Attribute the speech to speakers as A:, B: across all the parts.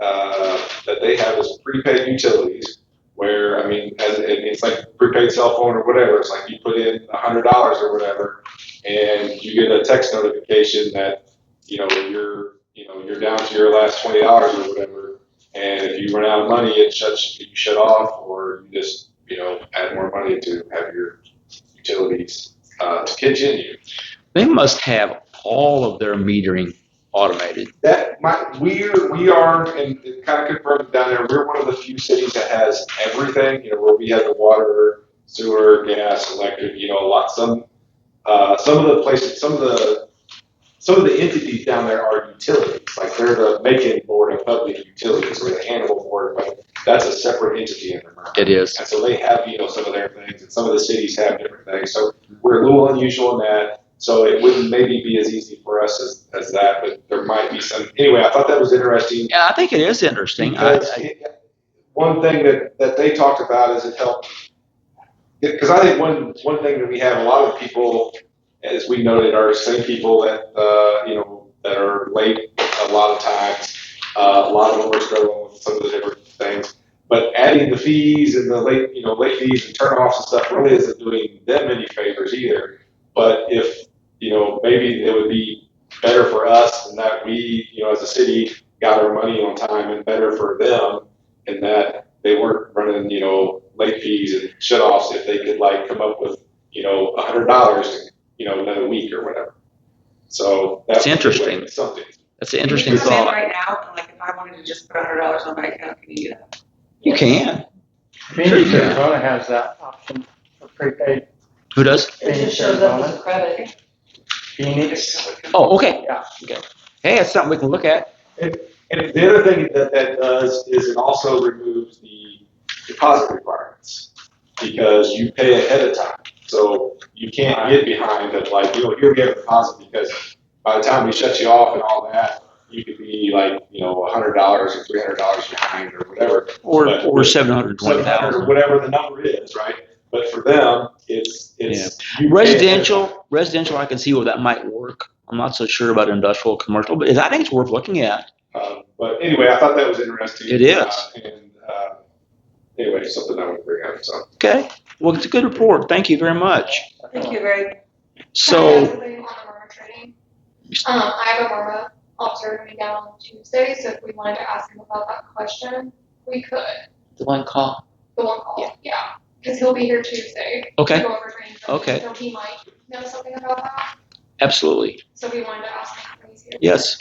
A: uh, that they have is prepaid utilities, where, I mean, as, and it's like prepaid cell phone or whatever, it's like you put in a hundred dollars or whatever, and you get a text notification that, you know, you're, you know, you're down to your last twenty dollars or whatever, and if you run out of money, it shuts, you shut off, or you just, you know, add more money to have your utilities, uh, to continue.
B: They must have all of their metering automated.
A: That my we we are and it kind of confirmed down there. We're one of the few cities that has everything. You know, where we have the water, sewer, gas, electric. You know, a lot some uh, some of the places, some of the some of the entities down there are utilities. Like they're the Macon Board of Public Utilities or the Hannibal Board, but that's a separate entity under Merck.
B: It is.
A: And so they have, you know, some of their things, and some of the cities have different things. So we're a little unusual in that. So it wouldn't maybe be as easy for us as, as that, but there might be some. Anyway, I thought that was interesting.
B: Yeah, I think it is interesting. I,
A: Because
B: I,
A: it- one thing that, that they talked about is it helped. Because I think one one thing that we have a lot of people, as we noted, are same people that uh, you know that are late a lot of times. Uh, a lot of them are struggling with some of the different things. But adding the fees and the late you know late fees and turnoffs and stuff really isn't doing them any favors either. But if you know maybe it would be better for us and that we you know as a city got our money on time and better for them in that they weren't running, you know, late fees and shut offs if they could like come up with, you know, a hundred dollars, you know, another week or whatever. So that's
B: It's interesting.
A: Something.
B: that's an interesting
C: You come in
B: thought.
C: right now, and like, if I wanted to just put a hundred dollars on my account, can you do that?
B: You can.
D: Phoenix, Arizona has that option for prepaid.
B: Who does?
C: It just shows up as a credit.
D: Phoenix,
B: Oh, okay.
D: yeah.
B: Hey, that's something we can look at.
A: And the other thing that that does is it also removes the deposit requirements because you pay ahead of time. So you can't get behind that like, you know, here we have a deposit because by the time we shut you off and all that, you could be like, you know, a hundred dollars or three hundred dollars behind or whatever.
B: Or
A: But-
B: or seven hundred
A: So
B: twenty
A: or
B: thousand.
A: whatever the number is, right? But for them, it's, it's. you pay ahead of time.
B: Residential, residential. I can see where that might work. I'm not so sure about industrial, commercial, but I think it's worth looking at.
A: Um, But anyway, I thought that was interesting.
B: It is.
A: Uh, And, uh, anyway, something I would bring up, so.
B: Okay. Well, it's a good report. Thank you very much.
C: Thank you, Greg.
B: So.
E: Um, I have Aurora officer coming down on Tuesday, so if we wanted to ask him about that question, we could,
F: the one call.
E: the one call, yeah. Cause he'll be here Tuesday. to
B: Okay.
E: go over training sessions,
B: Okay.
E: So he might know something about that,
B: Absolutely.
E: so we wanted to ask him when he's here.
B: Yes.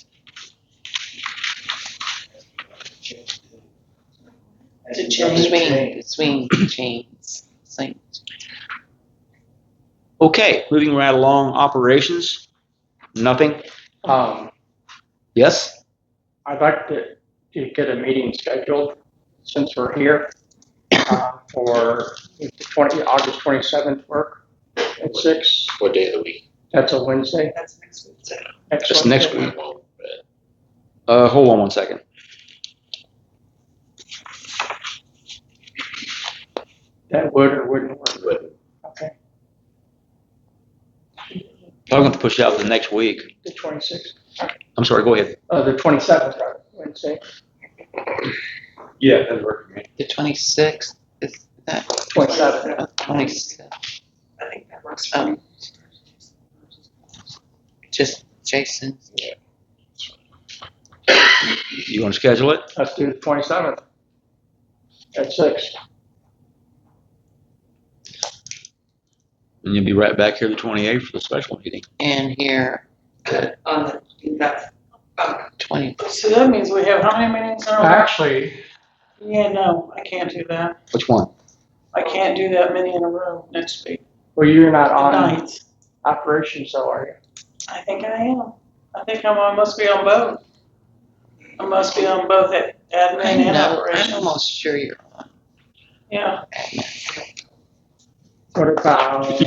F: To Swing, swing chains. Swing.
B: Okay. Moving right along. Operations. Nothing.
D: Um,
B: Yes.
D: I'd like to, to get a meeting scheduled since we're here, uh, for the twenty, August twenty-seventh work at six.
G: What day of the week?
D: That's a Wednesday,
C: That's next week. so.
D: next
B: That's next
D: Wednesday.
B: week. Uh, hold on one second.
D: That would or wouldn't work,
G: But
D: okay,
B: Probably going to push it out to the next week.
D: the twenty-sixth,
B: I'm sorry. Go ahead.
D: uh, the twenty-seventh, Wednesday,
A: Yeah, that'd work for me.
F: The twenty-sixth, is that
D: twenty-seventh.
F: twenty-sixth?
C: I think that works for me.
F: Um, just Jason.
B: You want to schedule it?
D: Let's do the twenty-seventh at six.
B: And you'll be right back here the 28th for the special meeting.
F: And here,
C: On the, in that, um,
F: twenty,
H: So that means we have how many meetings
C: Oh.
D: Uh,
H: in a row?
D: Actually,
H: Yeah, no, I can't do that.
B: Which one?
H: I can't do that many in a row next week.
D: well, you're not on
H: Nights.
D: operations, though, are you?
H: I think I am. I think I'm, I must be on both. I must be on both ad- admin
F: I
H: and
F: know, I'm
H: operations.
F: almost sure you're on.
H: Yeah,
D: What about,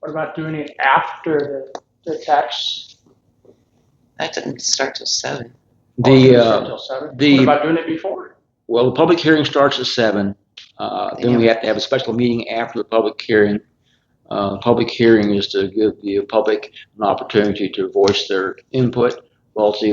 D: what about doing it after the, the tax?
F: That didn't start till seven.
D: Oh,
B: The, uh,
D: Until seven?
B: the-
D: What about doing it before?
B: well, the public hearing starts at seven. Uh, then we have to have a special meeting after the public hearing. Uh, public hearing is to give the public an opportunity to voice their input relative